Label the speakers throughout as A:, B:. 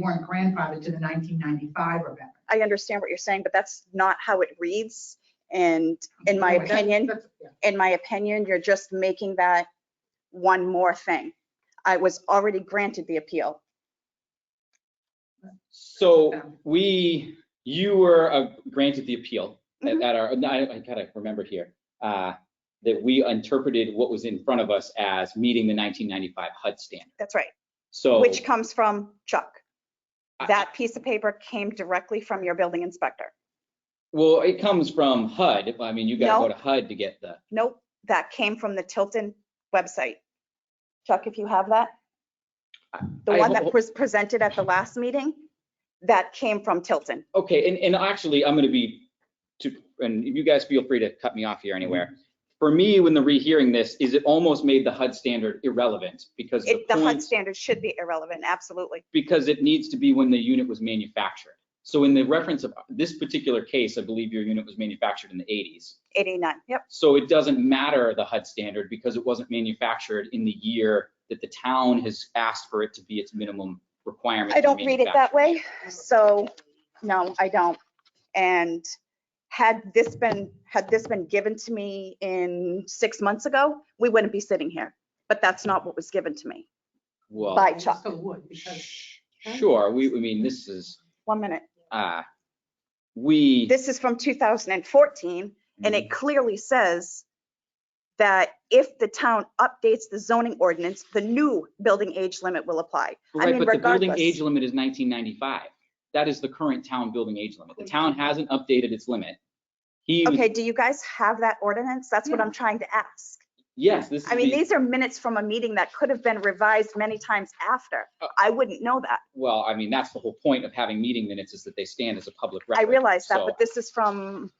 A: weren't grandfathered to the 1995 or better.
B: I understand what you're saying, but that's not how it reads. And in my
A: Anyway, that's-
B: opinion,
A: that's- yeah.
B: in my opinion, you're just making that one more thing. I was already granted the appeal.
C: So
A: Yeah.
C: we, you were uh, granted the appeal
B: Mm-hmm.
C: at at our, no, I I gotta remember here, uh, that we interpreted what was in front of us as meeting the 1995 HUD standard.
B: That's right,
C: So.
B: which comes from Chuck.
C: Oh. I-
B: That piece of paper came directly from your building inspector.
C: Well, it comes from HUD. I mean, you gotta go to HUD to get the,
B: Nope, that came from the Tilton website. Chuck, if you have that? The
C: I
B: one that
C: hope-
B: was presented at the last meeting, that came from Tilton.
C: okay, and, and actually, I'm gonna be, to, and you guys feel free to cut me off here anywhere.
B: Mm-hmm.
C: For me, when the rehearing this, is it almost made the HUD standard irrelevant because the
B: It, the HUD
C: point-
B: standard should be irrelevant, absolutely.
C: because it needs to be when the unit was manufactured. So in the reference of this particular case, I believe your unit was manufactured in the 80s.
B: 89, yep,
C: So it doesn't matter the HUD standard because it wasn't manufactured in the year that the town has asked for it to be its minimum requirement.
B: I
C: for
B: don't read it that
C: manufacturing.
B: way, so, no, I don't. And had this been, had this been given to me in six months ago, we wouldn't be sitting here. But that's not what was given to me.
C: Well,
B: By
A: It
B: Chuck,
A: Still would, because
C: sh- sure, we, I mean, this is,
B: one minute.
C: uh, we.
B: This is from 2014, and it
C: Mm-hmm.
B: clearly says that if the town updates the zoning ordinance, the new building age limit will apply. I
C: Right,
B: mean,
C: but the building
B: regardless,
C: age limit is 1995. That is the current town building age limit. The town hasn't updated its limit. He was
B: okay, do you guys have that ordinance? That's what I'm trying to ask.
C: Yes, this is.
B: I mean,
C: the-
B: these are minutes from a meeting that could have been revised many times after.
C: Uh,
B: I wouldn't know that.
C: Well, I mean, that's the whole point of having meeting minutes is that they stand as a public record.
B: I realize that,
C: So,
B: but this is from,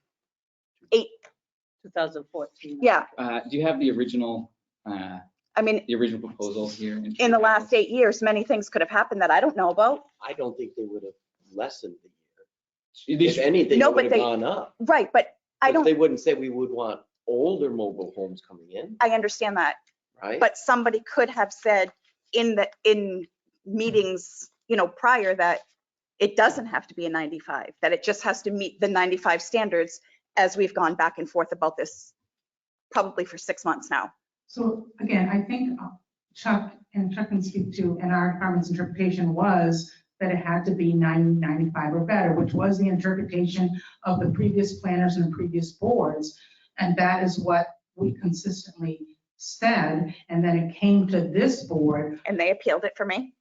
D: 2014.
B: yeah,
C: uh, Do you have the original, uh,
B: I mean,
C: the original proposal here?
B: in the last eight years, many things could have happened that I don't know about.
D: I don't think they would have lessened the year.
C: These-
D: If anything,
B: No,
D: it
B: but
D: would have
B: they-
D: gone up.
B: Right, but I
D: Because They
B: don't,
D: wouldn't say we would want older mobile homes coming in,
B: I understand that.
D: right?
B: But somebody could have said in the, in meetings, you know, prior that it doesn't have to be a 95, that it just has to meet the 95 standards as we've gone back and forth about this probably for six months now.
A: So again, I think uh, Chuck and Chuck can speak to, and our department's interpretation was that it had to be 90, 95 or better, which was the interpretation of the previous planners and the previous boards. And that is what we consistently said. And then it came to this board
B: And they appealed it for me.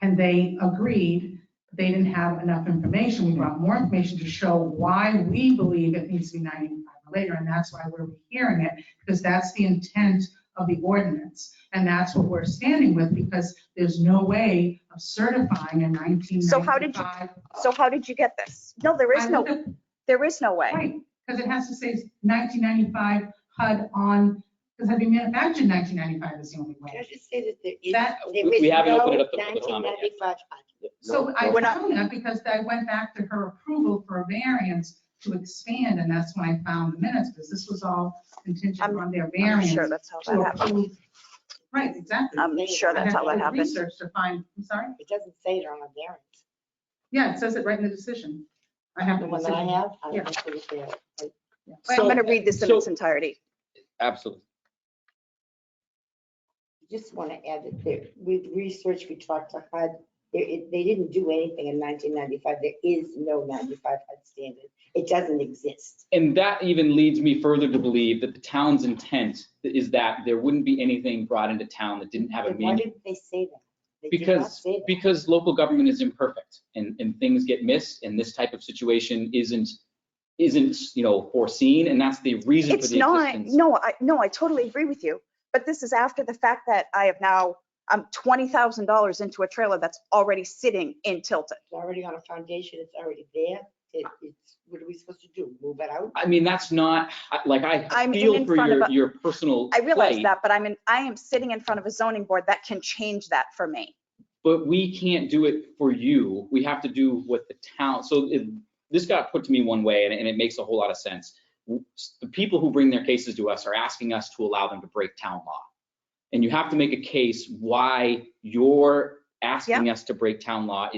A: and they agreed they didn't have enough information. We brought more information to show why we believe it needs to be 95 or later. And that's why we're rehearing it, because that's the intent of the ordinance. And that's what we're standing with, because there's no way of certifying a 1995.
B: So how did you- So how did you get this? No, there is
A: I
B: no,
A: looked at-
B: there is no way.
A: Right, because it has to say 1995 HUD on, because it'd be manufactured in 1995 is the only way.
E: Can I just say that there is,
A: That-
E: there
C: We-
E: is
C: we haven't
E: no
C: opened it up to public comment yet.
E: 1995
A: So
D: No,
A: I
D: no.
B: We're not-
A: found that because I went back to her approval for a variance to expand, and that's when I found the minutes, because this was all contingent
B: I'm-
A: on their
B: I'm
A: variance.
B: sure that's how
A: to
B: that happened.
A: approve- Right, exactly.
B: I'm sure that's how
A: I
B: that
A: had to do
B: happened.
A: Research to find, I'm sorry,
E: It doesn't say it on a variance.
A: yeah, it says it right in the decision. I have
E: The
A: the
E: one that I
A: decision.
E: have, I
A: Yeah.
E: don't think it's there.
B: I'm going to read this in
C: so-
B: its entirety.
C: Absolutely.
E: I Just want to add that there, with research, we talked to HUD, there is- they didn't do anything in 1995. There is no 95 HUD standard. It doesn't exist.
C: And that even leads me further to believe that the town's intent is that there wouldn't be anything brought into town that didn't have a
E: Then Why
C: meaning.
E: did they say that? They did not
C: Because,
E: say that.
C: because local government is imperfect and, and things get missed and this type of situation isn't, isn't, you know, foreseen. And that's the reason for
B: It's
C: the
B: not,
C: existence.
B: no, I, no, I totally agree with you. But this is after the fact that I have now, I'm $20,000 into a trailer that's already sitting in Tilton.
E: It's already on a foundation. It's already there. It, it's, what are we supposed to do? Move it out?
C: I mean, that's not, I- like, I
B: I'm
C: feel
B: in
C: for
B: front of
C: your,
B: a-
C: your personal
B: I realize
C: plight,
B: that, but I'm in, I am sitting in front of a zoning board that can change that for me.
C: But we can't do it for you. We have to do what the town, so it- this got put to me one way and, and it makes a whole lot of sense. The people who bring their cases to us are asking us to allow them to break town law. And you have to make a case why your asking us to break town law is